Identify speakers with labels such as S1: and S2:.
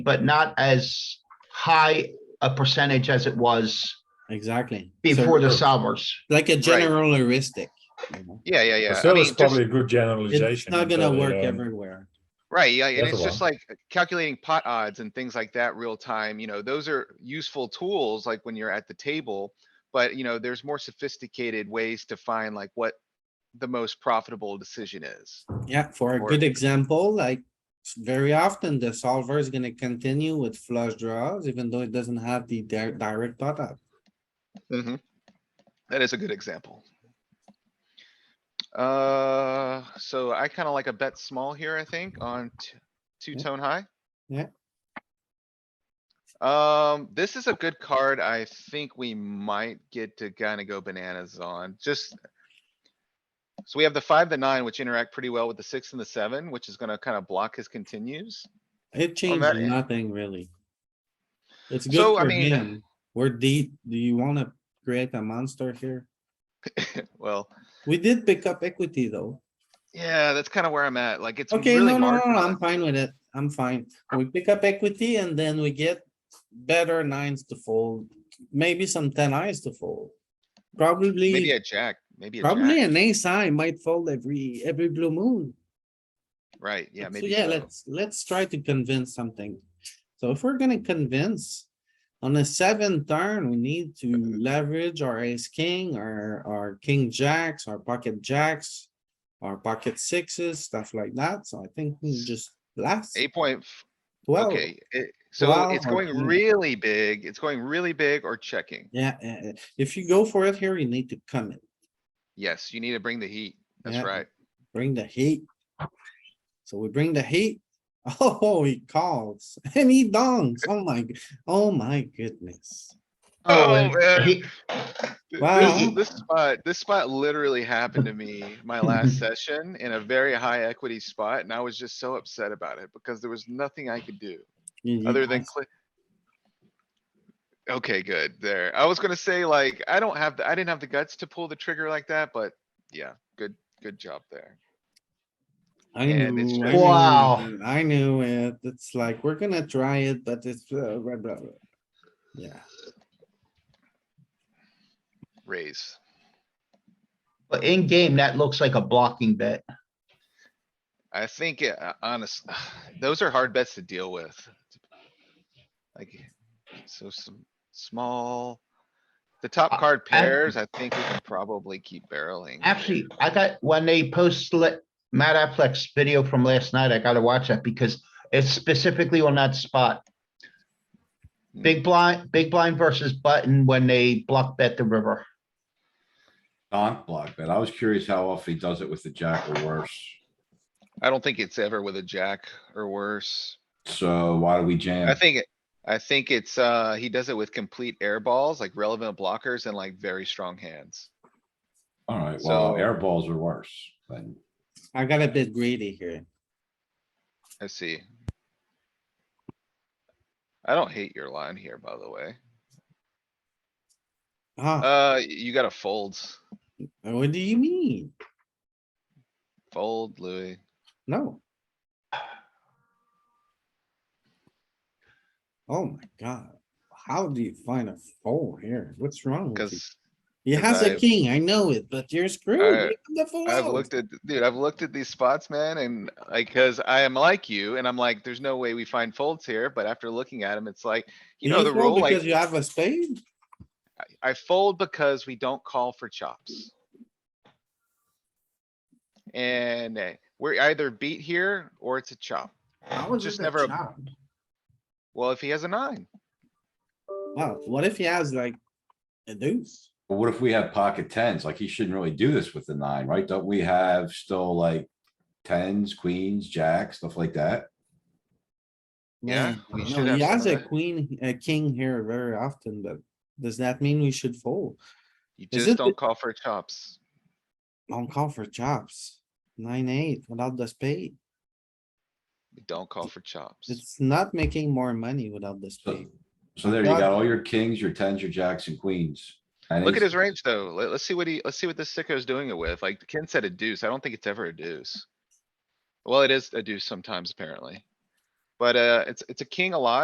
S1: but not as high a percentage as it was
S2: exactly. So
S1: before the solvers.
S2: Like a general heuristic. you know.
S3: Yeah, yeah, yeah. I
S4: Brazil is
S3: mean, just,
S4: probably a good
S2: It's
S4: generalization.
S2: not gonna
S4: but,
S2: work
S4: um,
S2: everywhere.
S3: right, yeah, and
S4: That's
S3: it's
S4: a
S3: just
S4: lot.
S3: like calculating pot odds and things like that real time, you know, those are useful tools, like when you're at the table. But, you know, there's more sophisticated ways to find like what the most profitable decision is.
S2: Yeah, for a
S3: Or-
S2: good example, like s- very often the solver is gonna continue with flush draws, even though it doesn't have the di- direct pot up. Mm-hmm.
S3: Mhm. That is a good example. Uh, so I kinda like a bet small here, I think, on t- two tone high.
S2: Yeah.
S3: Um, this is a good card. I think we might get to kinda go bananas on, just. So we have the five, the nine, which interact pretty well with the six and the seven, which is gonna kinda block his continues.
S2: It
S3: that
S2: changes
S3: end.
S2: nothing really. It's
S3: So,
S2: good
S3: I
S2: for
S3: mean-
S2: him. We're deep. Do you wanna create a monster here?
S3: Well,
S2: We did pick up equity though.
S3: yeah, that's kinda where I'm at. Like, it's
S2: Okay, no,
S3: really
S2: no,
S3: hard.
S2: no,
S3: for
S2: I'm
S3: the-
S2: fine with it. I'm fine. We pick up equity and then we get better nines to fold, maybe some ten eyes to fold.
S3: Maybe
S2: Probably,
S3: a jack, maybe a jack.
S2: probably an ace high might fold every, every blue moon.
S3: Right, yeah,
S2: So
S3: maybe.
S2: Yeah,
S3: so.
S2: let's, let's try to convince something. So if we're gonna convince on the seventh turn, we need to leverage our ace king, our, our king jacks, our pocket jacks, our pocket sixes, stuff like that. So I think we just blast.
S3: Eight point, f-
S2: Well,
S3: okay, it- so
S2: Wow,
S3: it's going
S2: okay.
S3: really big, it's going really big or checking.
S2: yeah, eh, eh, if you go for it here, you need to come in,
S3: Yes, you need to bring the heat, that's
S2: Yeah.
S3: right.
S2: bring the heat. So we bring the heat. Oh, he calls and he dongs. Oh my, g- oh my goodness.
S3: Oh,
S1: and
S3: man.
S1: he-
S3: Th-
S2: Wow.
S3: This, this spot, this spot literally happened to me my last session in a very high equity spot, and I was just so upset about it because there was nothing I could do
S2: You- you
S3: other than
S2: ask-
S3: click. Okay, good, there. I was gonna say like, I don't have, the I didn't have the guts to pull the trigger like that, but yeah, good, good job there.
S2: I
S3: and it's
S2: knew, I
S3: just-
S2: knew
S1: Wow.
S2: it, I knew it. It's like, we're gonna try it, but it's uh, blah, blah, blah. Yeah,
S3: Raise.
S1: But in game, that looks like a blocking bet.
S3: I think, it- uh, honest, those are hard bets to deal with. Like, so some small, the top
S1: Uh,
S3: card
S1: I-
S3: pairs, I think we can probably keep barreling.
S1: Actually, I got, when they post let Matt Affleck's video from last night, I gotta watch that because it's specifically on that spot. Big blind, big blind versus button when they block bet the river.
S5: Don't block bet. I was curious how often he does it with the jack or worse.
S3: I don't think it's ever with a jack or worse.
S5: So why do we jam?
S3: I think, it- I think it's, uh, he does it with complete air balls, like relevant blockers and like very strong hands.
S5: Alright, well,
S3: so-
S5: air balls are worse, but
S2: I got a bit greedy here.
S3: I see. I don't hate your line here, by the way.
S2: Ah,
S3: Uh, y- you got a folds, Uh,
S2: what do you mean?
S3: fold Louis.
S2: No. Oh my god, how do you find a fold here? What's wrong with you?
S3: Cause
S2: He
S3: 'cause
S2: has a
S3: I've-
S2: king, I know it, but you're screwed.
S3: I-
S2: Look at the
S3: I've
S2: fold.
S3: looked at, dude, I've looked at these spots, man, and like, cause I am like you, and I'm like, there's no way we find folds here, but after looking at them, it's like, you know, the
S2: fold
S3: rule,
S2: Because
S3: like,
S2: you have a spade?
S3: I fold because we don't call for chops. And eh, we're either beat here or it's a chop.
S2: How is
S3: Just
S2: it a
S3: never a-
S2: chop?
S3: Well, if he has a nine,
S2: Wow, what if he has like a deuce?
S5: but what if we have pocket tens? Like he shouldn't really do this with the nine, right? Don't we have still like tens, queens, jacks, stuff like that?
S3: Yeah,
S2: Man,
S3: we
S2: no,
S3: should have
S2: He
S3: some
S2: has
S3: of
S2: a
S3: that.
S2: queen, a king here very often, but does that mean we should fold?
S3: you
S2: Is
S3: just
S2: it the-
S3: don't call for chops.
S2: Don't call for chops. Nine, eight without the spade.
S3: You Don't call for chops.
S2: It's not making more money without the
S5: So,
S2: spade.
S5: so there you
S2: Well-
S5: got all your kings, your tens, your jacks and queens. And
S3: Look at
S5: aces.
S3: his range though. Let, us see what he, let's see what this sicko is doing it with. Like Ken said a deuce. I don't think it's ever a deuce. Well, it is a deuce sometimes apparently. But, uh, it's, it's a king a lot.